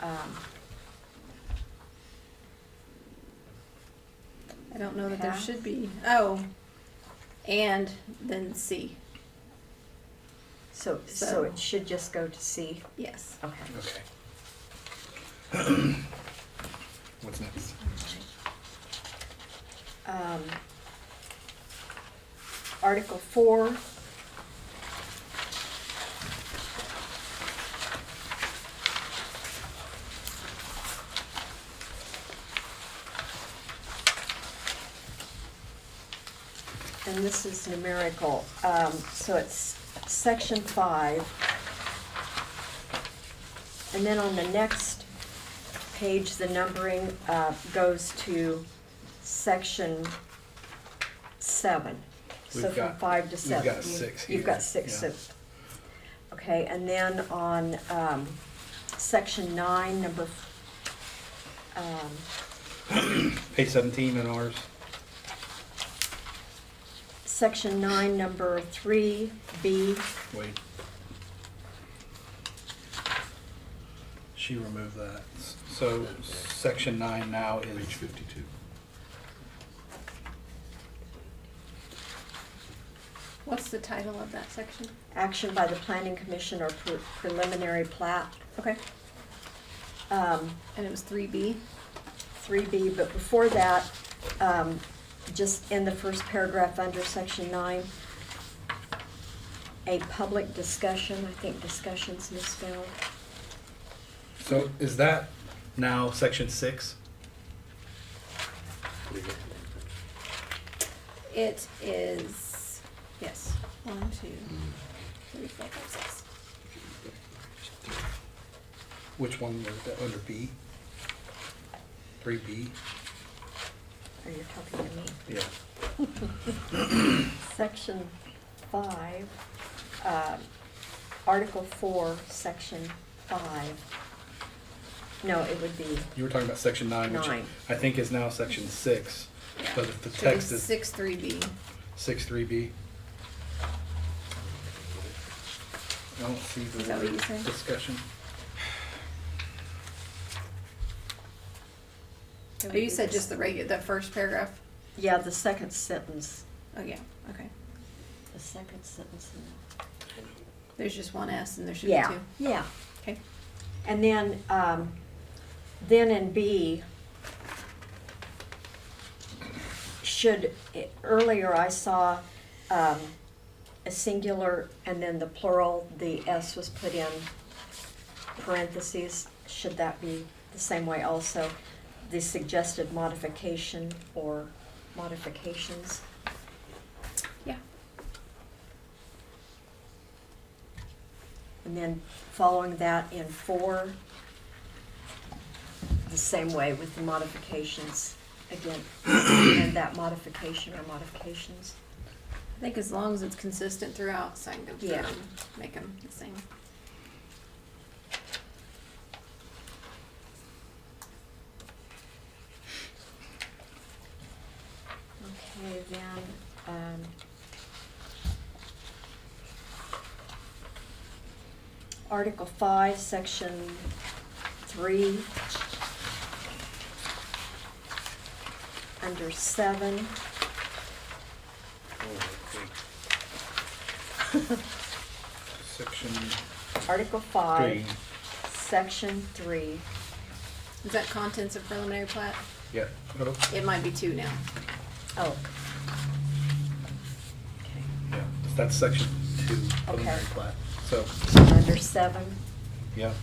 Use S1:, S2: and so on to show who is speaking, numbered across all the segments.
S1: um,
S2: I don't know that there
S1: Half.
S2: should be. Oh, and then C.
S1: so,
S2: So-
S1: Oh, so it should just go to C?
S2: Yes.
S1: Okay.
S3: Okay. What's next?
S1: Um, Article four. And this is numerical, um, so it's section five. And then on the next page, the numbering, uh, goes to section seven. So
S3: We've
S1: from
S3: got-
S1: five to
S3: we've
S1: seven.
S3: got six
S1: You've got
S3: here,
S1: six,
S3: yeah.
S1: so, okay, and then on, um, section nine, number, f- um,
S3: Page seventeen in ours.
S1: section nine, number three, B,
S3: Wait. She removed that. So section nine now is. Page fifty-two.
S2: What's the title of that section?
S1: action by the planning commission or pre- preliminary plat. Okay. Um,
S2: And it was three B.
S1: three B, but before that, um, just in the first paragraph under section nine, a public discussion, I think discussion's misspelled.
S3: So is that now section six?
S2: It is yes. One, two, three, four, five, six.
S3: Which one was that, under B? Three B?
S1: Are you talking to me?
S3: Yeah.
S1: Section five, um, Article four, section five. No, it would be,
S3: You were talking about section nine, which
S1: Nine.
S3: I think is now section six,
S2: Yeah.
S3: but if the
S2: So it was
S3: text is
S2: six three B.
S3: six three B. I don't see
S2: Is
S3: the
S2: that what you
S3: word
S2: said?
S3: discussion.
S2: Oh, you said just the regular, the first paragraph.
S1: yeah, the second sentence,
S2: Oh yeah. Okay.
S1: the second sentence. in the-
S2: There's just one S and there should be
S1: Yeah,
S2: two.
S1: yeah.
S2: Okay.
S1: And then, um, then in B, should, eh, earlier I saw, um, a singular and then the plural, the S was put in parentheses. Should that be the same way also? The suggested modification or modifications?
S2: Yeah.
S1: And then following that in four, the same way with the modifications, again, and that modification or modifications.
S2: I think as long as it's consistent throughout, so I can go through
S1: Yeah.
S2: and make them the same.
S1: Okay, then, um, Article five, section three, under seven,
S3: Oh, Section
S1: Article
S3: three,
S1: five, section three.
S2: Is that contents of preliminary plat?
S3: yeah. Oh,
S2: It might be two now.
S1: Oh.
S3: yeah. That's section two, preliminary
S1: Okay.
S3: plat. So,
S1: Okay, Under seven,
S3: yeah,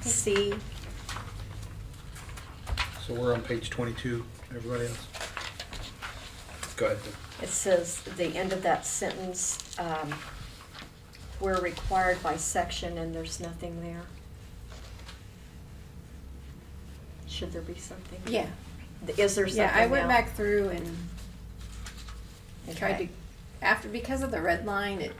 S1: C,
S3: so we're on page twenty-two, everybody else? Go ahead.
S1: It says, the end of that sentence, um, we're required by section and there's nothing there. Should there be something?
S2: Yeah.
S1: Is there something
S2: Yeah, I went
S1: now?
S2: back through and tried to
S1: Okay.
S2: after because of the red line it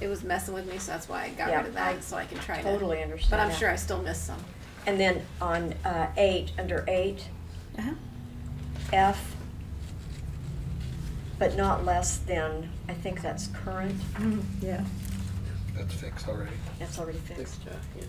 S2: it was messing with me, so that's why I got
S1: Yeah,
S2: rid of that
S1: I
S2: so I can try
S1: Totally
S2: to.
S1: understand
S2: But I'm
S1: that.
S2: sure I still missed some.
S1: And then on, uh, eight, under eight,
S2: Uh-huh.
S1: F, but not less than, I think that's current,
S2: Yeah.
S3: That's fixed already.
S1: that's already fixed.
S4: Extra, yeah.